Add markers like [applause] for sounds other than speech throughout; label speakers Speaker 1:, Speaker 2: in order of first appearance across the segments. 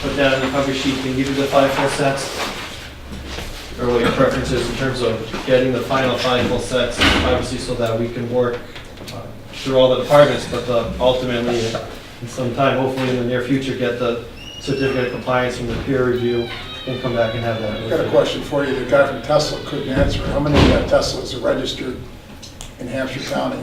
Speaker 1: put down in the cover sheet, can give you the five full sets. Or what your preference is in terms of getting the final five full sets, obviously so that we can work uh, through all the departments, but the- ultimately, in some time, hopefully in the near future, get the certificate of compliance from the peer review and come back and have that.
Speaker 2: I've got a question for you. The guy from Tesla couldn't answer. How many uh, Teslas are registered in Hampshire County?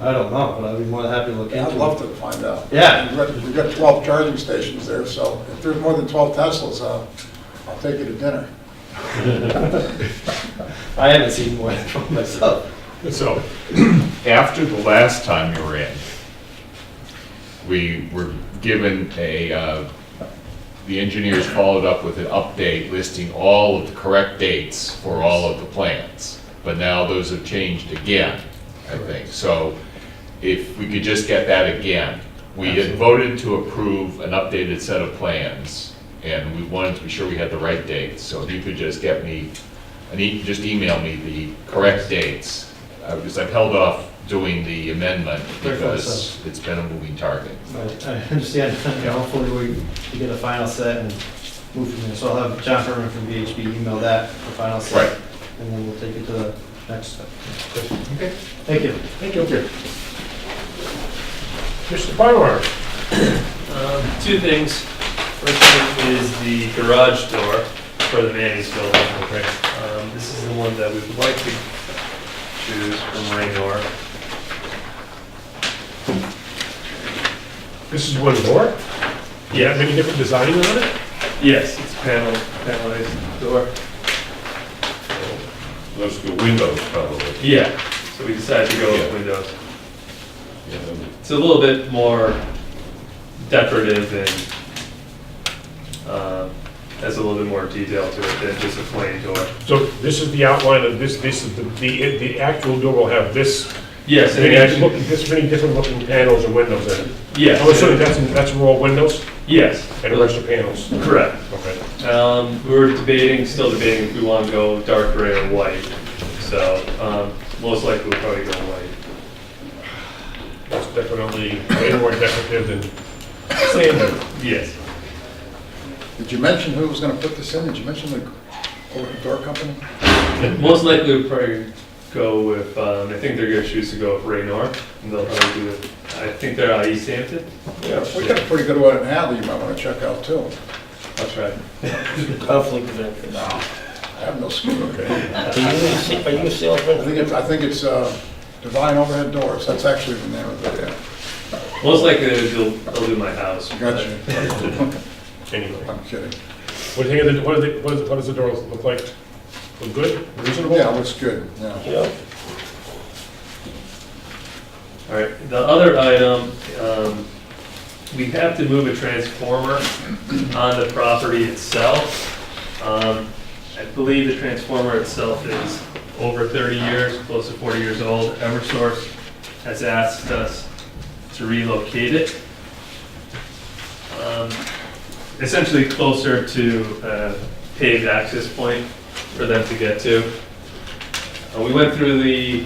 Speaker 1: I don't know, but I'd be more than happy to look into it.
Speaker 2: I'd love to find out.
Speaker 1: Yeah.
Speaker 2: We've got- We've got 12 charging stations there, so if there's more than 12 Teslas, uh, I'll take you to dinner.
Speaker 1: I haven't seen one from myself.
Speaker 3: So, [clears throat] after the last time you were in, we were given a, uh, the engineers followed up with an update listing all of the correct dates for all of the plans. But now those have changed again, I think. So if we could just get that again. We had voted to approve an updated set of plans, and we wanted to be sure we had the right dates. So if you could just get me, and e- just email me the correct dates, uh, because I've held off doing the amendment
Speaker 1: Very well said.
Speaker 3: because it's been a moving target.
Speaker 1: I I understand, you know, hopefully we we get a final set and move from there. So I'll have John Furman from VHB email that, the final set.
Speaker 3: Right.
Speaker 1: And then we'll take it to the next step. Thank you.
Speaker 4: Thank you. Mr. Byler,
Speaker 5: Um, Two things. First thing is the garage door for the Manny's building. Um, This is the one that we would like to choose from Raynor.
Speaker 4: this is one door? Do you have any different designing on it?
Speaker 5: Yes, it's panel, panelized door.
Speaker 3: Those are windows, probably.
Speaker 5: Yeah, so we decided to go with
Speaker 3: Yeah.
Speaker 5: windows. It's a little bit more decorative and um, has a little bit more detail to it than just a plain door.
Speaker 4: So this is the outline of this, this is the, the the actual door will have this,
Speaker 5: Yes, and it
Speaker 4: many look-
Speaker 5: actually,
Speaker 4: this many different looking panels and windows in it. I'm assuming
Speaker 5: yes,
Speaker 4: that's, that's raw windows
Speaker 5: yes.
Speaker 4: and the rest are panels.
Speaker 5: Correct.
Speaker 4: Okay.
Speaker 5: Um, we were debating, still debating if we want to go dark gray or white. So, um, most likely we'll probably go white.
Speaker 4: That's definitely way more decorative than sand.
Speaker 5: Yes.
Speaker 2: Did you mention who was going to put this in? Did you mention the over- door company?
Speaker 5: Most likely we'll probably go with, um, I think they're gonna choose to go with Raynor. And they'll probably do it, I think they're out of East Hampton.
Speaker 2: Yeah, we got a pretty good one in Hadley you might want to check out too.
Speaker 5: I'll try.
Speaker 6: Conflict of interest.
Speaker 2: I have no skin. I
Speaker 6: Are you a sa- Are you a salesman?
Speaker 2: think it's, I think it's uh, Divine Overhead Doors. That's actually the name of it, yeah.
Speaker 5: Most likely they'll, uh, they'll do my house.
Speaker 2: Gotcha.
Speaker 4: Anyway,
Speaker 2: I'm kidding.
Speaker 4: what do you think of the, what do they- what is- what does the door look like? Look good, reasonable?
Speaker 2: Yeah, it looks good, yeah.
Speaker 6: You know?
Speaker 5: All right, the other item, um, we have to move a transformer on the property itself. Um, I believe the transformer itself is over 30 years, close to 40 years old. Eversource has asked us to relocate it. Um, Essentially closer to uh, paved access point for them to get to. Uh, We went through the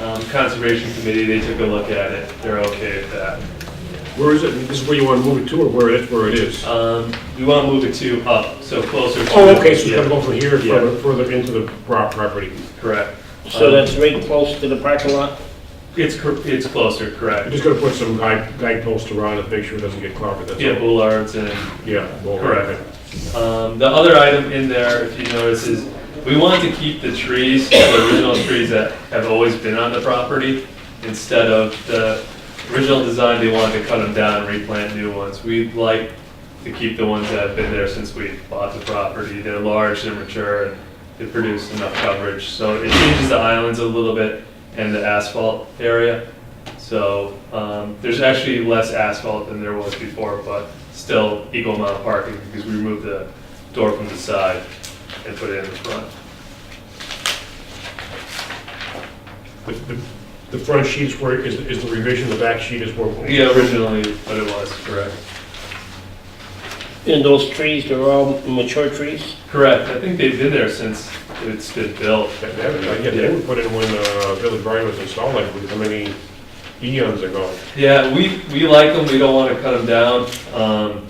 Speaker 5: um, Conservation Committee, they took a look at it, they're okay with that.
Speaker 4: Where is it? This is where you want to move it to or where it, where it is?
Speaker 5: Um, we want to move it to up, so closer to.
Speaker 4: Oh, okay, so it's gonna
Speaker 5: Yeah,
Speaker 4: go from here
Speaker 5: Yeah.
Speaker 4: further, further into the pro- property.
Speaker 5: Correct.
Speaker 6: So
Speaker 5: Um,
Speaker 6: that's right close to the parking lot?
Speaker 5: It's, cor- it's closer,
Speaker 4: I'm
Speaker 5: correct.
Speaker 4: just gonna put some guide, guideposts around it, make sure it doesn't get clobbered, that's all.
Speaker 5: Yeah, Bullards and,
Speaker 4: Yeah. well,
Speaker 5: correct. Um, the other item in there, if you notice, is we want to keep the trees, the original trees that have always been on the property, instead of the original design, they wanted to cut them down and replant new ones. We'd like to keep the ones that have been there since we bought the property. They're large, they're mature, and they produce enough coverage. So it changes the islands a little bit and the asphalt area. So um, there's actually less asphalt than there was before, but still equal amount of parking because we removed the door from the side and put it in the front.
Speaker 4: The, the- the front sheet's where, is, is the revision, the back sheet is where.
Speaker 5: Yeah, originally, but it was, correct.
Speaker 6: And those trees, they're all mature trees?
Speaker 5: Correct, I think they've been there sinse it's been built.
Speaker 4: That- that- Yeah, they would put in when, uh, Village Bryan was installed, like, how many eons ago?
Speaker 5: Yeah, we, we like them, we don't want to cut them down. Um,